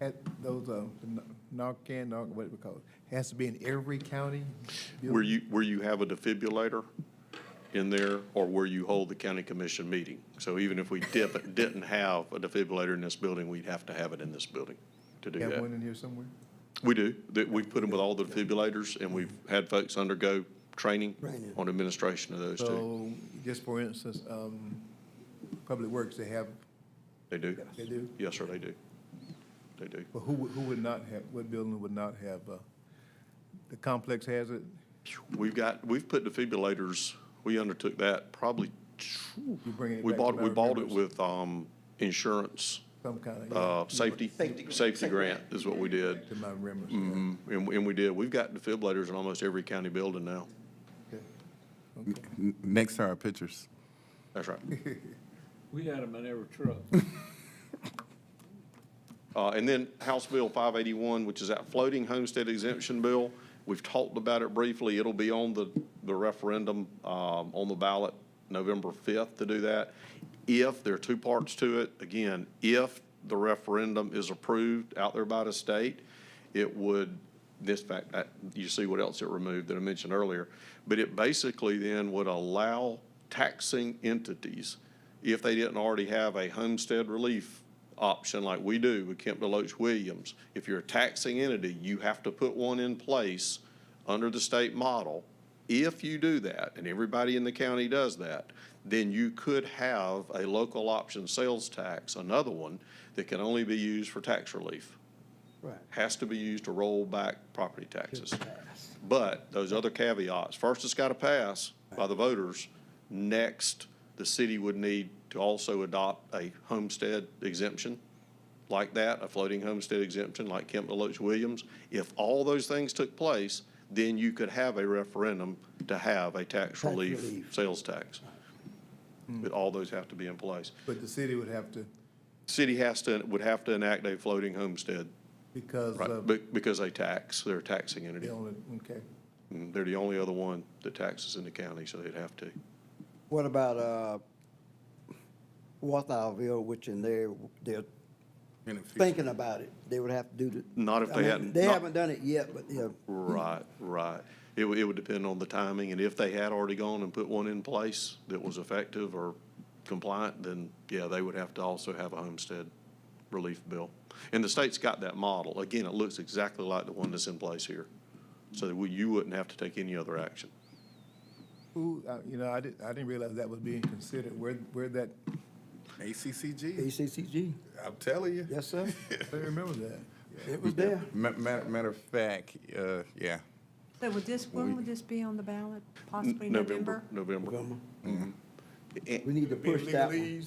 At those, uh, the N- Narcan, Narcan, what do we call it, has to be in every county? Where you, where you have a defibrillator in there or where you hold the county commission meeting. So even if we dip, didn't have a defibrillator in this building, we'd have to have it in this building to do You Have one that. in here somewhere? We do, that, we've put them with all the defibrillators and we've had folks undergo training on administration of those too. So, just for instance, um, Public Works, they have, They do? they do? Yes, sir, they do. They do. But who, would- who would not have, what building would not have, uh, the complex has it? We've got, we've put defibrillators, we undertook that probably, You bringing it we back to bought, my we bought it remembrance? with, um, insurance, Some kind uh, of, safety, safety grant is what we did. to my remembrance. Mhm. And, and we did. We've got defibrillators in almost every county building now. Okay. N- Next are our pictures. That's right. We had them in every truck. Uh, and then House Bill five eighty-one, which is that floating homestead exemption bill. We've talked about it briefly. It'll be on the, the referendum, um, on the ballot November fifth to do that. If, there are two parts to it. Again, if the referendum is approved out there by the state, it would, this fact, uh, you see what else it removed that I mentioned earlier. But it basically then would allow taxing entities, if they didn't already have a homestead relief option like we do with Kemp Deloach Williams, if you're a taxing entity, you have to put one in place under the state model. If you do that, and everybody in the county does that, then you could have a local option sales tax, another one, that can only be used for tax relief has to be used to roll back property taxes. But those other caveats, first it's got to pass by the voters. Next, the city would need to also adopt a homestead exemption like that, a floating homestead exemption like Kemp Deloach Williams. If all those things took place, then you could have a referendum to have a tax relief, sales tax. But all those have to be in place. But the city would have to, City has to, would have to enact a floating homestead because Right, of, be- because they tax, they're a taxing they entity. only, okay. Mm, They're the only other one that taxes in the county, so they'd have to. What about, uh, Walthallville, which in there, they're thinking about it, they would have to do the. Not if I they mean, hadn't- They not- haven't done it yet, but, you know, Right, right. It would, it would depend on the timing, and if they had already gone and put one in place that was effective or compliant, then, yeah, they would have to also have a homestead relief bill. And the state's got that model. Again, it looks exactly like the one that's in place here. So that we- you wouldn't have to take any other action. Who, uh, you know, I didn't, I didn't realize that was being considered, where, where that, ACCG, ACCG, I'm telling you. yes, sir, I don't remember that. it was there. Ma- ma- Matter of fact, uh, yeah, So would this, when would this be on the ballot, possibly N- November? November. A- We need to push that one.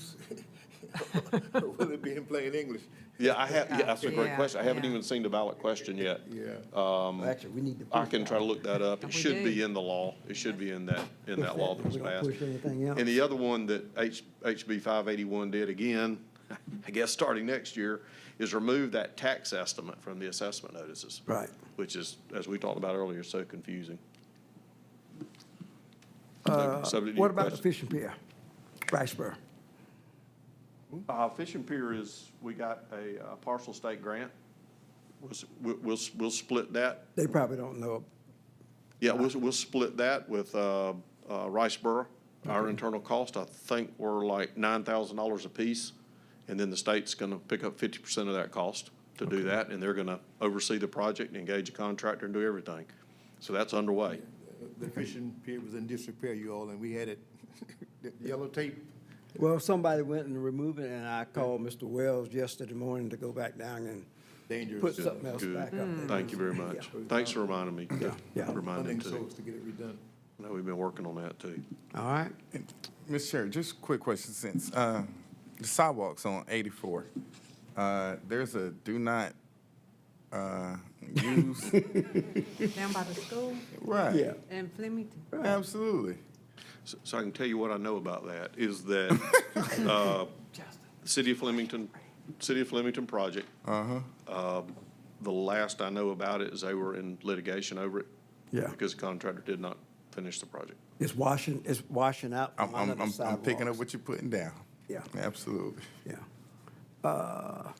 Will it be in plain English? Yeah, I have, yeah, that's a great Yeah, question. I haven't yeah. even seen the ballot question yet. Yeah. Actually, we need to push. um, I can try to look that up. It We should be do. in the law. It should be in that, in Push that law that was We don't passed. Push anything else. And the other one that H, HB five eighty-one did again, I guess starting next year, is remove that tax estimate from the assessment notices. Right. Which is, as we talked about earlier, so confusing. So- subject to your Uh, What about the question. fishing pier, Riceboro? Uh, Fishing Pier is, we got a uh, partial state grant. We'll s- We'll, we'll, s- we'll split that They probably don't know, Yeah, we'll, we'll split that with uh, uh, Riceboro. Our internal cost, I think, were like $9,000 apiece. And then the state's going to pick up 50% of that cost to do that. And they're going to oversee the project, and engage a contractor, and do everything. So that's underway. The fishing pier was in disrepair, you all, and we had it, the yellow tape. well, somebody went and removed it, and I called Mr. Wells yesterday morning to go back down and. Dangerous. Put something else Good. back up there. Thank you very much. Yeah. Thanks for reminding me. yeah. Reminding Funding too. source to get it redone. I know we've been working on that too. All right, Ms. Chair, just a quick question since, uh, the sidewalks on eighty-four, uh, there's a do not, uh, use, Down by the school right? yeah. in Flemington? Absolutely. So- So I can tell you what I know about that, is that uh, the City of Flemington, City of Flemington project. Um, The last I know about it is they were in litigation over it. Yeah. Because the contractor did not finish the project. It's washing, it's washing out I'm, from under I'm, the I'm, I'm picking up sidewalks. what you're putting down. Yeah. Absolutely. Yeah. Uh,